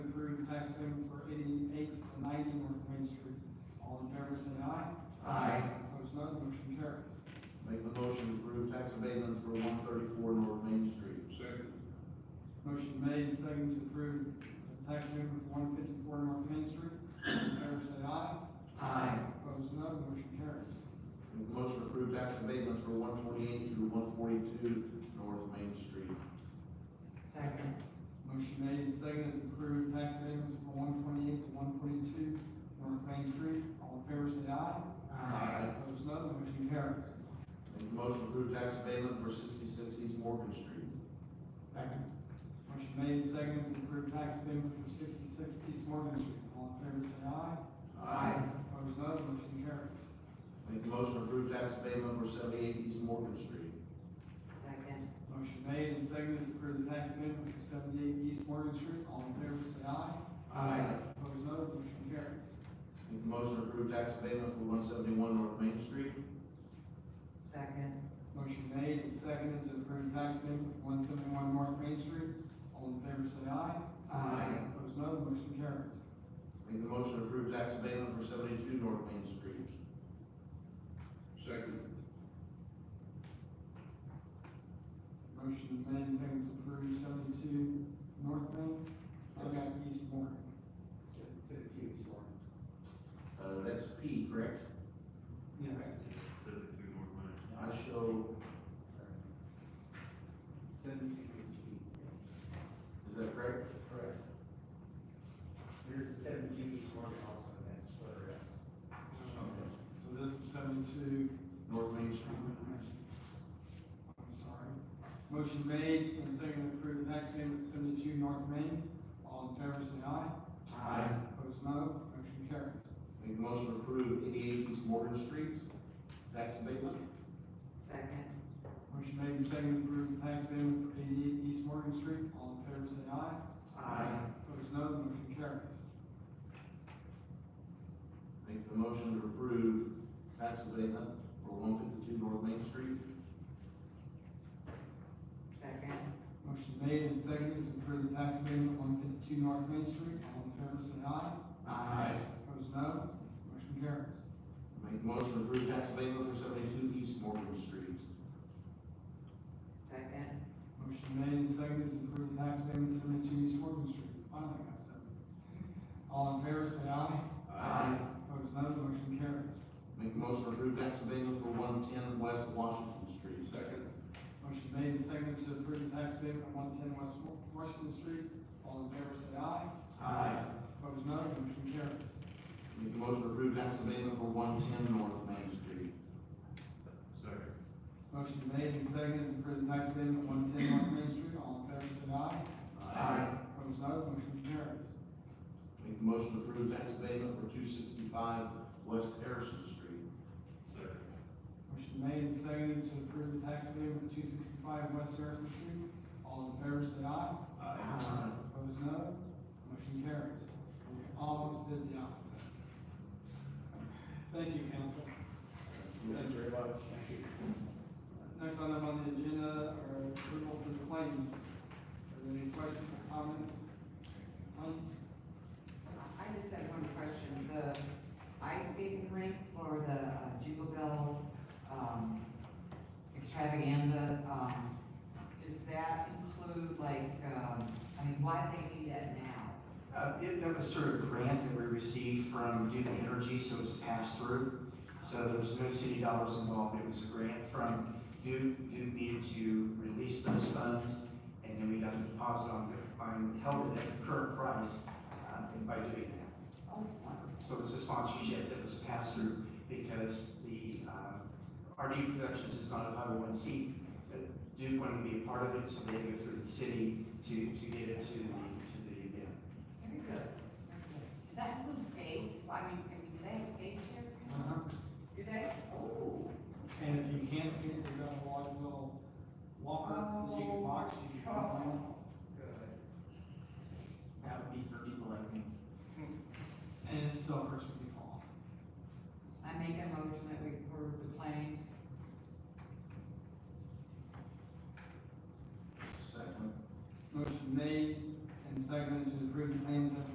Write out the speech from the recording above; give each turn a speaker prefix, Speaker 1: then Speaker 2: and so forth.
Speaker 1: ask them for eighty-eight to ninety North Main Street. All in favor, say aye.
Speaker 2: Aye.
Speaker 1: Opposed, no, the motion carries.
Speaker 2: Make the motion to approve tax abatements for one thirty-four North Main Street.
Speaker 3: Second.
Speaker 1: Motion made and seconded to approve the tax amendment for one fifty-four North Main Street. All in favor, say aye.
Speaker 2: Aye.
Speaker 1: Opposed, no, the motion carries.
Speaker 2: Make the motion to approve tax abatements for one twenty-eight through one forty-two North Main Street.
Speaker 4: Second.
Speaker 1: Motion made and seconded to approve tax amendments for one twenty-eight to one forty-two North Main Street. All in favor, say aye.
Speaker 2: Aye.
Speaker 1: Opposed, no, the motion carries.
Speaker 2: Make the motion to approve tax abatement for sixty-six East Morgan Street.
Speaker 1: Second. Motion made and seconded to approve tax amendment for sixty-six East Morgan Street. All in favor, say aye. Opposed, no, the motion carries.
Speaker 2: Make the motion to approve tax abatement for seventy-eight East Morgan Street.
Speaker 4: Second.
Speaker 1: Motion made and seconded to approve the tax amendment for seventy-eight East Morgan Street. All in favor, say aye. Opposed, no, the motion carries.
Speaker 2: Make the motion to approve tax abatement for one seventy-one North Main Street.
Speaker 4: Second.
Speaker 1: Motion made and seconded to approve tax amendment for one seventy-one North Main Street. All in favor, say aye. Opposed, no, the motion carries.
Speaker 2: Make the motion to approve tax abatement for seventy-two North Main Street.
Speaker 3: Second.
Speaker 1: Motion made and seconded to approve seventy-two North Main. I've got East Morgan.
Speaker 2: Uh, that's P, correct?
Speaker 1: Yes.
Speaker 3: Seventy-two North Main.
Speaker 2: I show, is that correct?
Speaker 5: Correct. There's a seventeen east one also, that's for us.
Speaker 1: So this is seventy-two.
Speaker 2: North Main Street.
Speaker 1: I'm sorry. Motion made and seconded to approve the tax amendment seventy-two North Main. All in favor, say aye. Opposed, no. Motion carries.
Speaker 2: Make the motion to approve eighty-eight East Morgan Street, tax abatement.
Speaker 4: Second.
Speaker 1: Motion made and seconded to approve the tax amendment for eighty-eight East Morgan Street. All in favor, say aye. Opposed, no. Motion carries.
Speaker 2: Make the motion to approve tax abatement for one fifty-two North Main Street.
Speaker 4: Second.
Speaker 1: Motion made and seconded to approve the tax amendment one fifty-two North Main Street. All in favor, say aye. Opposed, no. Motion carries.
Speaker 2: Make the motion to approve tax abatement for seventy-two East Morgan Street.
Speaker 4: Second.
Speaker 1: Motion made and seconded to approve the tax amendment seventy-two East Morgan Street. Finally got seven. All in favor, say aye. Opposed, no. Motion carries.
Speaker 2: Make the motion to approve tax abatement for one ten West Washington Street.
Speaker 3: Second.
Speaker 1: Motion made and seconded to approve the tax amendment one ten West Washington Street. All in favor, say aye. Opposed, no. Motion carries.
Speaker 2: Make the motion to approve tax abatement for one ten North Main Street.
Speaker 3: Second.
Speaker 1: Motion made and seconded to approve the tax amendment one ten North Main Street. All in favor, say aye. Opposed, no. Motion carries.
Speaker 2: Make the motion to approve tax abatement for two sixty-five West Harrison Street.
Speaker 3: Second.
Speaker 1: Motion made and seconded to approve the tax amendment two sixty-five West Harrison Street. All in favor, say aye. Uh, Opposed, no. Motion carries. We almost did the alphabet. Thank you, council.
Speaker 2: Thank you very much.
Speaker 1: Next item on the agenda are approval for the claims. Are there any questions or comments? Um,
Speaker 4: I just had one question. The ice skating rink for the uh, Jubal, um, extravaganza, um, does that include like, um, I mean, why do they need that now?
Speaker 5: Uh, it, that was sort of grant that we received from Duke Energy, so it's a pass-through. So there was no city dollars involved, it was a grant from Duke, Duke needed to release those funds, and then we got the deposit on the, on, held it at the current price, uh, and by doing that.
Speaker 4: Oh, wonderful.
Speaker 5: So it's a sponsorship that was passed through because the, um, RD Productions is not a five oh one C. But Duke wanted to be a part of it, so they go through the city to, to get it to the, to the event.
Speaker 4: Very good. Very good. Does that include skates? I mean, I mean, do they have skates here?
Speaker 1: uh-huh.
Speaker 4: Do they? Oh.
Speaker 1: And if you can't skate, we've got a lot of little walker, that you can box, you can run.
Speaker 5: That would be for people like me.
Speaker 1: And it still hurts me.